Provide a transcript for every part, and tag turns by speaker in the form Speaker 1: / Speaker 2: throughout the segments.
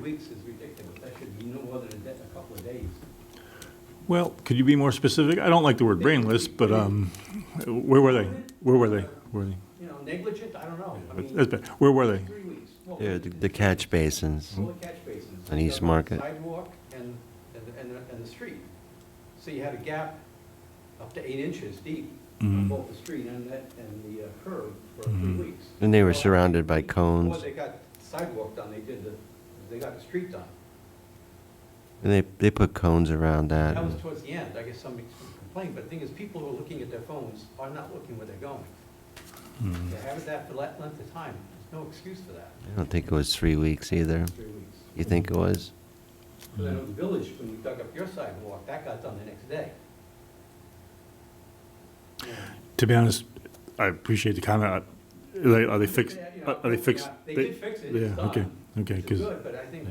Speaker 1: weeks is ridiculous. That should be no more than a day- a couple of days.
Speaker 2: Well, could you be more specific? I don't like the word brainless, but um, where were they? Where were they? Where were
Speaker 1: You know, negligent, I don't know. I
Speaker 2: they?
Speaker 1: mean,
Speaker 2: That's bad. Where were they?
Speaker 1: three weeks. Well,
Speaker 3: Yeah, the- the catch basins.
Speaker 1: Full of catch basins.
Speaker 3: On East
Speaker 1: the
Speaker 3: Market.
Speaker 1: Sidewalk and, and, the- and, the- and the street. So you had a gap up to eight inches deep on
Speaker 2: Mhm.
Speaker 1: both the street and that, and the uh, curb for three
Speaker 2: Mhm.
Speaker 1: weeks.
Speaker 3: And they were
Speaker 1: So,
Speaker 3: surrounded by
Speaker 1: Before
Speaker 3: cones.
Speaker 1: they got sidewalk done, they did the, they got the street done.
Speaker 3: And they, they put cones around that.
Speaker 1: That was
Speaker 3: and-
Speaker 1: towards the end, I guess somebody complained, but the thing is, people who are looking at their phones are not looking where they're going.
Speaker 2: Mm.
Speaker 1: They haven't that for that length of time, there's no excuse for that,
Speaker 3: I don't think it was three weeks either.
Speaker 1: three weeks.
Speaker 3: You think it was?
Speaker 1: But I know the village, when you dug up your sidewalk, that got done the next day. Yeah.
Speaker 2: To be honest, I appreciate the comment. Are they, are they fixed?
Speaker 1: Yeah, you know,
Speaker 2: Are are uh, they fixed?
Speaker 1: They did fix it, it's
Speaker 2: Yeah, okay,
Speaker 1: done.
Speaker 2: okay, hmm.
Speaker 1: It's
Speaker 2: because,
Speaker 1: good, but I think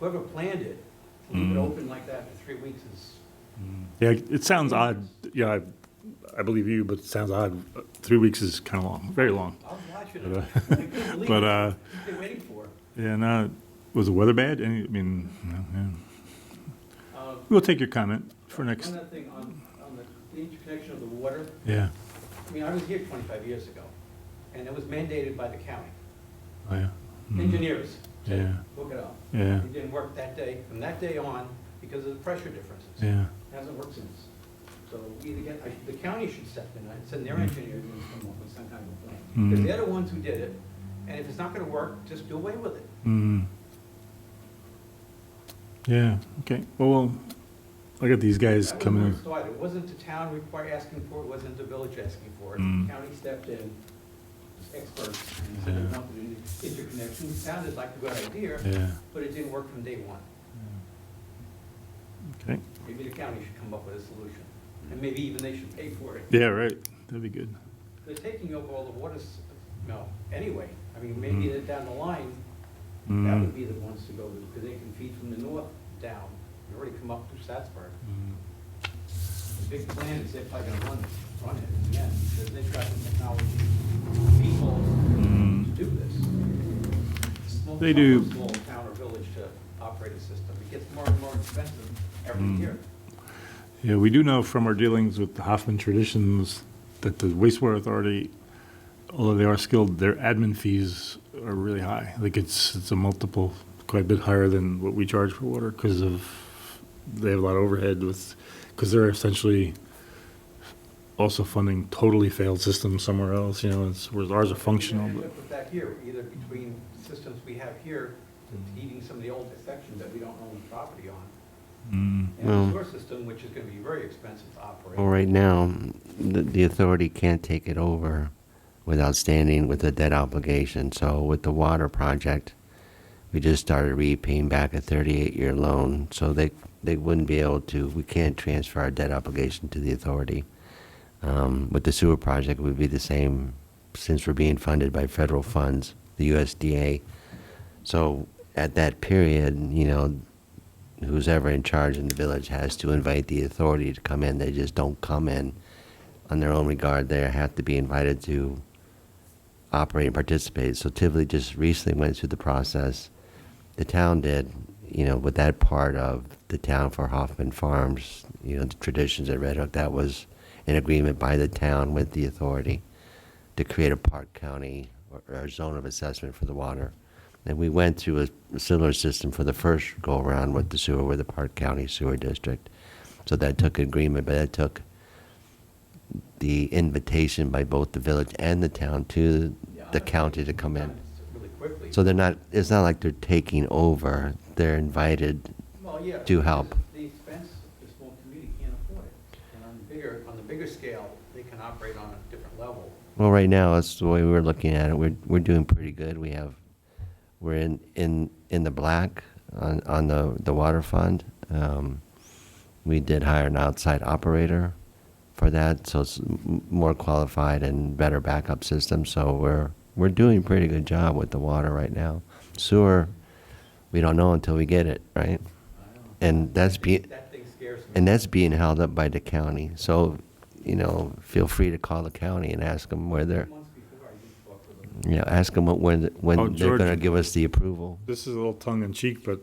Speaker 1: whoever planned it, to
Speaker 2: Mm.
Speaker 1: leave it open like that for three weeks is,
Speaker 2: yeah, it sounds odd. Yeah, I, I believe you, but it sounds odd. Three weeks is kind of long, very long.
Speaker 1: I was watching it.
Speaker 2: But, uh,
Speaker 1: I couldn't believe
Speaker 2: But,
Speaker 1: it.
Speaker 2: uh,
Speaker 1: They're waiting for it.
Speaker 2: yeah, no, was the weather bad? Any, I mean, no, yeah.
Speaker 1: Uh,
Speaker 2: We'll take your comment for next,
Speaker 1: One other thing, on, on the interconnection of the water,
Speaker 2: yeah,
Speaker 1: I mean, I was here twenty-five years ago, and it was mandated by the county.
Speaker 2: oh, yeah. Mm.
Speaker 1: Engineers said,
Speaker 2: Yeah.
Speaker 1: hook it up.
Speaker 2: Yeah,
Speaker 1: It didn't work that day, from that day on, because of the pressure differences. It
Speaker 2: yeah.
Speaker 1: Hasn't worked since. So we either get, I- the county should step in, I'd send
Speaker 2: Mm-hmm.
Speaker 1: their engineers in to come up with some kind of a plan. Because
Speaker 2: Mm.
Speaker 1: they're the ones who did it, and if it's not gonna work, just do away with it.
Speaker 2: Mm. Yeah, okay. Well, well, I got these guys
Speaker 1: That was
Speaker 2: coming
Speaker 1: where it
Speaker 2: in.
Speaker 1: started. It wasn't the town require, asking for it, wasn't the village asking for it.
Speaker 2: Mm.
Speaker 1: County stepped in, experts, and said they
Speaker 2: Yeah.
Speaker 1: wanted an interconnection. It Sounded like a good idea,
Speaker 2: Yeah,
Speaker 1: but it didn't work from day one.
Speaker 2: okay.
Speaker 1: Maybe the county should come up with a solution, and
Speaker 2: Hmm.
Speaker 1: maybe even they should pay for it.
Speaker 2: Yeah, right. That'd be good.
Speaker 1: They're taking over all the water, s- no, anyway. I mean, maybe
Speaker 2: Mm.
Speaker 1: that down the line, that would
Speaker 2: Mm.
Speaker 1: be the ones to go to, because they can feed from the north down. They already come up through Satsburg.
Speaker 2: Mm.
Speaker 1: The big plan is if I can run, run it again, because they've got the technology, people to
Speaker 2: Mm.
Speaker 1: do this. Small
Speaker 2: They
Speaker 1: town or
Speaker 2: do.
Speaker 1: Small town or village to operate a system. It gets more and more expensive every
Speaker 2: Mm.
Speaker 1: year.
Speaker 2: Yeah, we do know from our dealings with the Hoffman Traditions that the wastewater authority, although they are skilled, their admin fees are really high. Like it's, it's a multiple, quite a bit higher than what we charge for water because of, they have a lot of overhead with, because they're essentially also funding totally failed systems somewhere else, you know, it's, whereas ours are functional,
Speaker 1: We
Speaker 2: but,
Speaker 1: end up with that here, either between systems we have here, heating some of the older sections that we don't own the property on,
Speaker 2: mm,
Speaker 3: Well-
Speaker 1: and the sewer system, which is gonna be very expensive to operate.
Speaker 3: Well, right now, the, the authority can't take it over without standing with a debt obligation. So with the water project, we just started repaying back a 38-year loan. So they, they wouldn't be able to, we can't transfer our debt obligation to the authority. Um, with the sewer project, it would be the same since we're being funded by federal funds, the USDA. So at that period, you know, who's ever in charge in the village has to invite the authority to come in. They just don't come in on their own regard. They have to be invited to operate and participate. So Tivoli just recently went through the process. The town did, you know, with that part of the town for Hoffman Farms, you know, the traditions at Red Hook, that was an agreement by the town with the authority to create a park county or, or zone of assessment for the water. And we went through a similar system for the first go around with the sewer, with the Park County Sewer District. So that took agreement, but that took the invitation by both the village and the town to
Speaker 1: Yeah, I
Speaker 3: the
Speaker 1: don't
Speaker 3: county to
Speaker 1: think
Speaker 3: come in.
Speaker 1: sometimes Really quickly.
Speaker 3: So they're not, it's not like they're taking over, they're invited.
Speaker 1: Well, yeah.
Speaker 3: to help.
Speaker 1: The expense, the small community can't afford it. And on the bigger, on the bigger scale, they can operate on a different level.
Speaker 3: Well, right now, that's the way we're looking at it. We're, we're doing pretty good. We have, we're in, in, in the black on, on the, the water fund. Um, we did hire an outside operator for that, so it's m- more qualified and better backup system. So we're, we're doing a pretty good job with the water right now. Sewer, we don't know until we get it,
Speaker 1: I
Speaker 3: right?
Speaker 1: don't know.
Speaker 3: And that's be,
Speaker 1: Uh, That thing scares me.
Speaker 3: and that's being held up by the county. So, you know, feel free to call the county and ask them where they're,
Speaker 1: Months before I used to talk to them.
Speaker 3: you know, ask them when,
Speaker 2: Oh,
Speaker 3: when they're
Speaker 2: George.
Speaker 3: gonna give us the approval.
Speaker 2: This is a little tongue in cheek, but